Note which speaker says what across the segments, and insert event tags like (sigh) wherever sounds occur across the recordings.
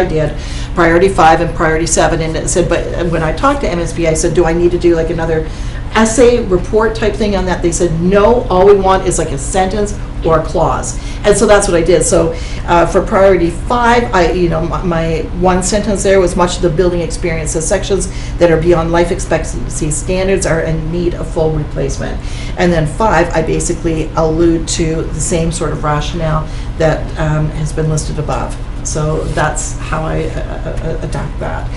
Speaker 1: I did, priority five and priority seven, and it said, but when I talked to MSBA, I said, do I need to do like another essay report type thing on that? They said, no, all we want is like a sentence or a clause. And so that's what I did. So uh, for priority five, I, you know, my- my one sentence there was much of the building experience, the sections that are beyond life expectancy standards are in need of full replacement. And then five, I basically allude to the same sort of rationale that um, has been listed above. So that's how I uh, uh, adopt that.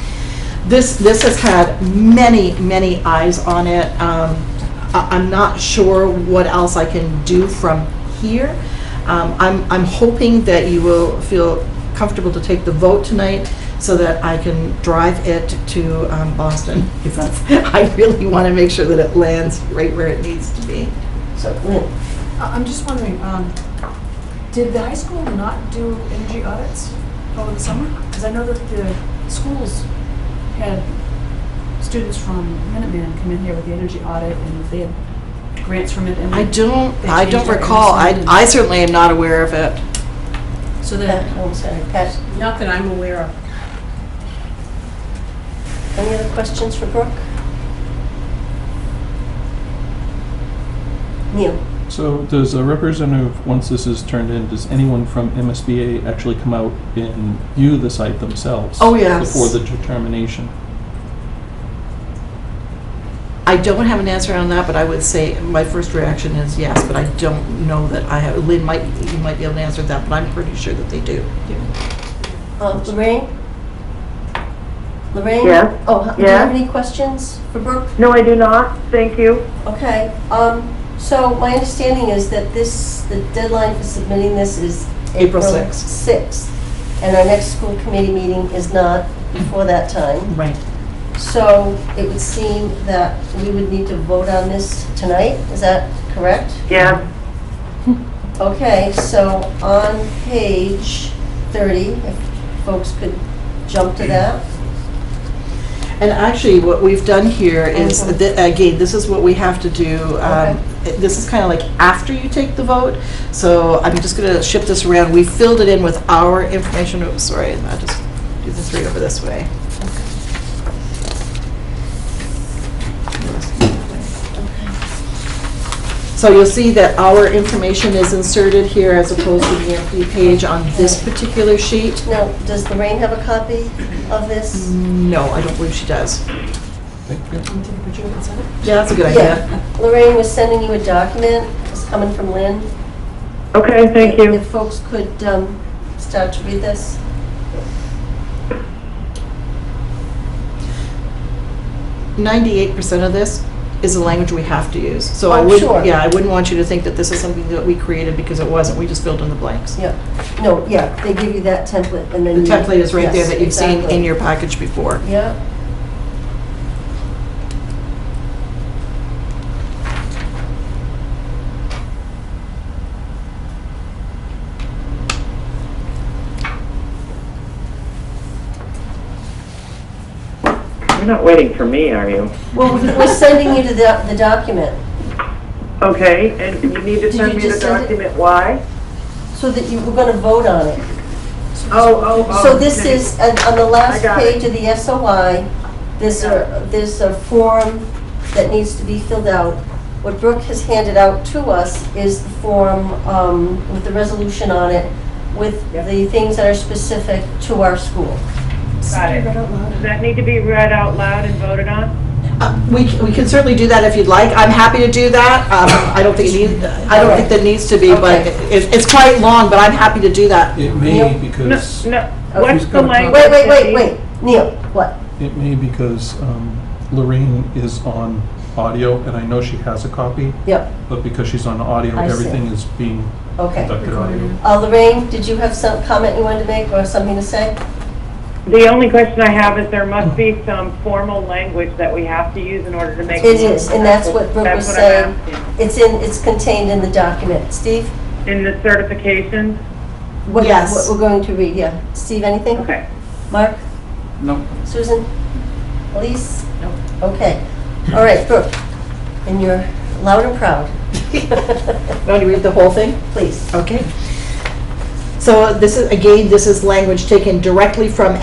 Speaker 1: This, this has had many, many eyes on it. Um, I- I'm not sure what else I can do from here. Um, I'm, I'm hoping that you will feel comfortable to take the vote tonight so that I can drive it to um, Boston. (laughs) Because I really want to make sure that it lands right where it needs to be. So, Lynn?
Speaker 2: I- I'm just wondering, um, did the high school not do energy audits over the summer? Because I know that the schools had students from Minuteman come in here with the energy audit, and they had grants from it, and...
Speaker 1: I don't,
Speaker 2: They
Speaker 1: I
Speaker 2: changed
Speaker 1: don't
Speaker 2: our
Speaker 1: recall. I,
Speaker 2: MSN.
Speaker 1: I certainly am not aware of it.
Speaker 2: So
Speaker 3: Pat
Speaker 2: that,
Speaker 3: Holmes, sorry, Pat,
Speaker 2: not that I'm aware of.
Speaker 3: any other questions for Brooke? Neil?
Speaker 4: So does a representative, once this is turned in, does anyone from MSBA actually come out and view the site themselves?
Speaker 1: Oh, yes.
Speaker 4: Before the determination?
Speaker 1: I don't have an answer on that, but I would say my first reaction is yes, but I don't know that I have, Lynn might, you might be able to answer that, but I'm pretty sure that they do.
Speaker 3: Uh, Lorraine? Lorraine?
Speaker 5: Yes.
Speaker 3: Oh, h- do you have
Speaker 5: Yes.
Speaker 3: any questions for Brooke?
Speaker 5: No, I do not, thank you.
Speaker 3: Okay, um, so my understanding is that this, the deadline for submitting this is
Speaker 1: April sixth.
Speaker 3: 6th. And our next school committee meeting is not before that time.
Speaker 1: Right.
Speaker 3: So it would seem that we would need to vote on this tonight, is that correct?
Speaker 5: Yeah,
Speaker 3: Okay, so on page 30, if folks could jump to that.
Speaker 1: And actually, what we've done here is,
Speaker 3: Mhm.
Speaker 1: thi- again, this is what we have to do. um, This is kind of like after you take the vote, so I'm just going to shift this around. We filled it in with our information, oh, sorry, I'll just do the three over this way. So you'll see that our information is inserted here as opposed to the empty page on this particular sheet.
Speaker 3: Now, does Lorraine have a copy of this?
Speaker 1: No, I don't believe she does.
Speaker 4: Thank you.
Speaker 2: Would you consent?
Speaker 1: Yeah, that's a good idea.
Speaker 3: Yeah, Lorraine was sending you a document, it's coming from Lynn.
Speaker 5: okay, thank you.
Speaker 3: If folks could um, start to read this.
Speaker 1: Ninety-eight percent of this is the language we have to use. So I
Speaker 3: Oh,
Speaker 1: would,
Speaker 3: sure.
Speaker 1: yeah, I wouldn't want you to think that this is something that we created because it wasn't. We just filled in the blanks.
Speaker 3: Yeah, no, yeah, they give you that template and
Speaker 1: The
Speaker 3: then. you-
Speaker 1: template is right there
Speaker 3: Yes,
Speaker 1: that you've seen
Speaker 3: exactly.
Speaker 1: in your package before.
Speaker 3: Yeah,
Speaker 5: You're not waiting for me, are you?
Speaker 3: well, we're sending you to the the document
Speaker 5: Okay, and you need to
Speaker 3: Did
Speaker 5: send
Speaker 3: you
Speaker 5: me the
Speaker 3: just send it?
Speaker 5: document, why?
Speaker 3: so that you, we're going to vote on it.
Speaker 5: Oh, oh, oh.
Speaker 3: So this
Speaker 5: okay.
Speaker 3: is, on on the last
Speaker 5: I got it.
Speaker 3: page of the SOI, there's a, there's a form that needs to be filled out. What Brooke has handed out to us is the form um, with the resolution on it, with
Speaker 5: Yep.
Speaker 3: the things that are specific to our school.
Speaker 6: Got it. Does that need to be read out loud and voted on?
Speaker 1: (laughs) Uh, We, we can certainly do that if you'd like. I'm happy to do that. Um, I don't think it needs, I don't think that needs to be, but
Speaker 3: Okay.
Speaker 1: it, it's quite long, but I'm happy to do that.
Speaker 4: It
Speaker 3: Yep.
Speaker 4: may
Speaker 6: No,
Speaker 4: because,
Speaker 6: no,
Speaker 3: Okay.
Speaker 6: what's the
Speaker 4: Wait,
Speaker 6: language?
Speaker 3: Oh, Wait, wait,
Speaker 6: that
Speaker 3: wait,
Speaker 6: she-
Speaker 3: wait, Neil, what?
Speaker 4: it may because um, Lorraine is on audio, and I know she has a copy,
Speaker 3: Yep,
Speaker 4: but because she's on audio,
Speaker 3: I see.
Speaker 4: everything is being
Speaker 3: okay.
Speaker 4: conducted audio.
Speaker 3: Uh, Lorraine, did you have some comment you wanted to make or something to say?
Speaker 6: The only question I have is there must be some formal language that we have to use in order to make.
Speaker 3: It is, and that's what Brooke
Speaker 6: That's
Speaker 3: was
Speaker 6: what
Speaker 3: saying.
Speaker 6: I'm asking.
Speaker 3: It's in, it's contained in the document. Steve?
Speaker 6: In the certification?
Speaker 3: What-
Speaker 1: Yes.
Speaker 3: What we're going to read, yeah. Steve, anything?
Speaker 6: Okay.
Speaker 3: Mark?
Speaker 4: No.
Speaker 3: Susan? Elise? Okay. All right, Brooke, and you're loud and proud. (laughs)
Speaker 1: Want to read the whole thing?
Speaker 3: Please.
Speaker 1: Okay. So this is, again, this is language taken directly from